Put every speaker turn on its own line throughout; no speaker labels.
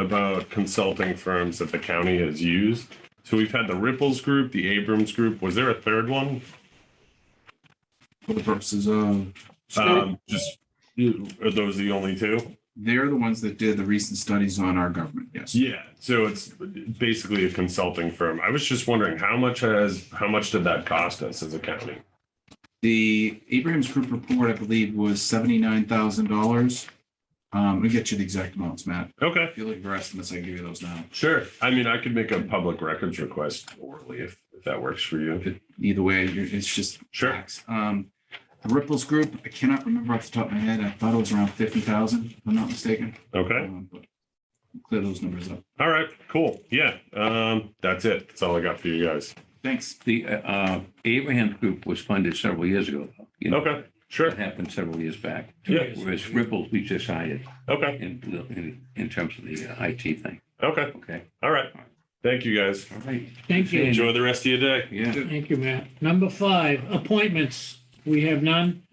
about consulting firms that the county has used. So we've had the Ripples Group, the Abrams Group. Was there a third one?
for
Mm-hmm.
the purposes of,
Um, just, are those the only two?
they're the ones that did the recent studies on our government, yes.
Yeah, so it's basically a consulting firm. I was just wondering how much has, how much did that cost us as a county?
The Abraham's Group report, I believe, was seventy-nine thousand dollars. Um, we get you the exact amounts, Matt.
Okay,
If you look for estimates, I can give you those now.
sure. I mean, I could make a public records request orally if, if that works for you.
Either way, you're- it's just
Sure.
facts. Um, the Ripples Group, I cannot remember off the top of my head. I thought it was around fifty thousand, if I'm not mistaken.
Okay,
Um, but Clear those numbers up.
all right, cool. Yeah, um, that's it. That's all I got for you guys.
Thanks.
The uh, Abraham Group was funded several years ago. though. You know,
Okay,
That
sure.
happened several years back.
Yeah,
Whereas Ripples, we just hired
okay,
in, in, in terms of the uh, IT thing.
okay,
Okay,
all right. Thank you, guys.
all right.
Thank you.
Enjoy the rest of your day.
Yeah.
Thank you, Matt. Number five, appointments. We have none.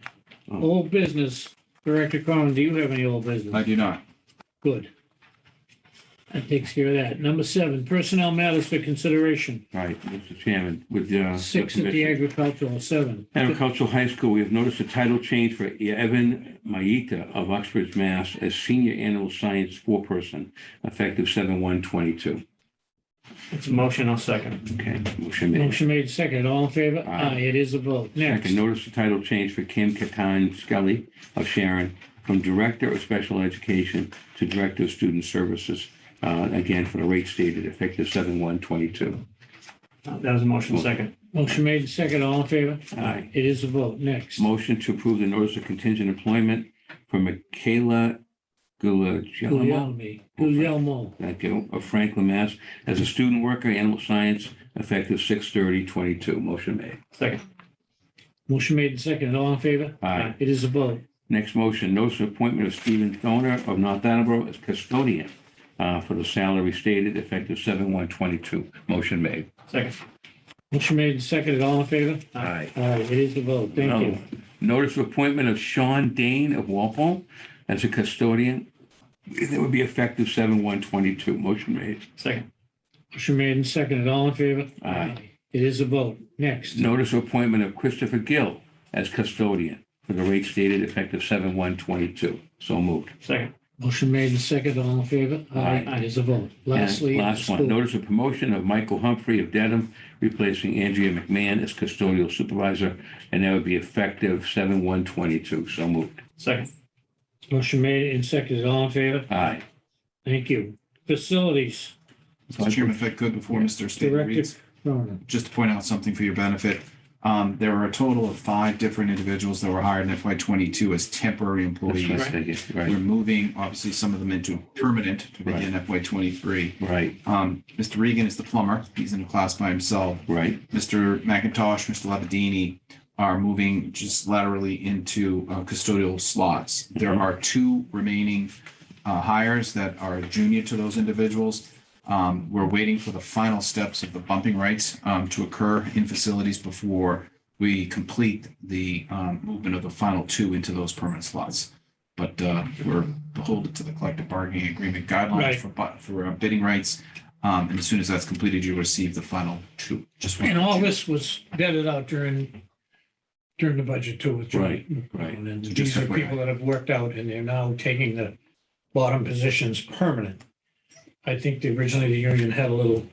Oh.
Old business. Director Cronin, do you have any old business?
I do not.
Good. That takes care of that. Number seven, personnel matters for consideration.
All right, Mr. Chairman, with uh, the.
Six at the
commission.
agricultural, seven.
Agricultural High School, we have noticed a title change for Evan Maeta of Oxford, Mass. as Senior Animal Science Foreperson, effective seven one twenty-two.
It's a motion, I'll second.
Okay, motion made.
Motion made second. All in favor?
Aye.
Aye, it is a vote. Next.
Second, notice the title change for Kim Katan Scully of Sharon from Director of Special Education to Director of Student Services, uh, again, for the rate stated effective seven one twenty-two.
That was a motion, second.
Motion made second. All in favor?
Aye.
It is a vote. Next.
Motion to approve the notice of contingent employment for Michaela Gulagelmo
Guglielmi, Guglielmo.
Thank you. Of Franklin, Mass. As a student worker, animal science, effective 6 22 Motion made.
Second.
Motion made second. All in favor?
Aye.
It is a vote.
Next motion, notice of appointment of Stephen Thoner of North Attleboro as custodian uh, for the salary stated, effective 7 one Motion made.
Second.
Motion made second. All in favor?
Aye.
Aye, it is a vote. Thank you.
Notice of appointment of Sean Dane of Walpole as a custodian. That would be effective 7 one Motion made.
Second.
Motion made and seconded. All in favor?
Aye.
It is a vote. Next.
Notice of appointment of Christopher Gill as custodian for the rate stated, effective 7 one So moved.
Second.
Motion made and seconded. All in favor?
Aye.
It is a vote.
And
Lastly.
Last one,
school.
notice of promotion of Michael Humphrey of Dedham, replacing Andrea McMahon as custodial supervisor, and that would be effective seven one twenty-two. So moved.
Second.
Motion made and seconded. All in favor?
Aye.
Thank you. Facilities.
Mr. Chairman, if I could, before Mr. Staley
Director.
reads.
Cronin.
just to point out something for your benefit, um, there were a total of five different individuals that were hired in FY twenty-two as temporary
That's
employees.
what I figured.
We're
Right,
moving, obviously, some of them into permanent to begin FY twenty-three.
right,
Um, Mr. Regan is the plumber. He's in a class by himself.
right.
Mr. McIntosh, Mr. Labadini are moving just laterally into uh, custodial slots. There
Mhm.
are two remaining uh, hires that are junior to those individuals. Um, We're waiting for the final steps of the bumping rights um, to occur in facilities before we complete the um, movement of the final two into those permanent slots. But uh, we're beholden to the collective bargaining agreement guidelines
Right.
for bu- for uh, bidding rights. Um, And as soon as that's completed, you receive the final two. Just wanted
And
to
all
let you know.
this was vetted out during, during the budget too. with-
Right, right.
And these are people that have worked out and they're now taking the bottom positions permanent. I think the- originally the union had a little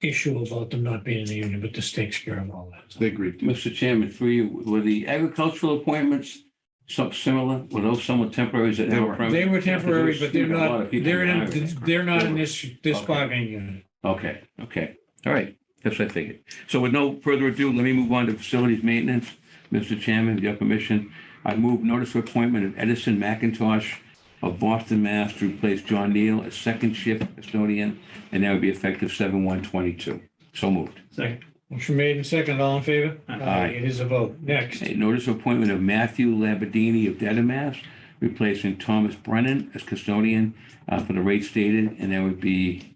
issue about them not being in the union, but this takes care of all that.
They agreed to.
Mr. Chairman, for you, were the agricultural appointments some similar? Were those somewhat temporary?
They were.
They were temporary, but they're
A lot
not,
of people
they're
hired.
in, they're not in this, this
Okay.
bargaining unit.
Okay, okay, all right, that's what I figured. So with no further ado, let me move on to facilities maintenance. Mr. Chairman, with your permission, I move notice of appointment of Edison McIntosh of Boston, Mass. to replace John Neal as second shift custodian, and that would be effective seven one twenty-two. So moved.
Second.
Motion made and second, all in favor? Aye. It is a vote. Next.
A notice of appointment of Matthew Labadini of Dedham, Mass., replacing Thomas Brennan as custodian uh, for the rate stated, and that would be,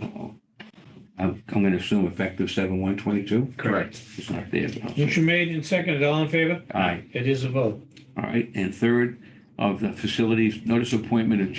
uh-oh. I'm going to assume effective seven one twenty-two?
Correct.
It's not there. but I'll say-
Motion made and second, all in favor?
Aye.
It is a vote.
All right. And third, of the facilities, notice of appointment of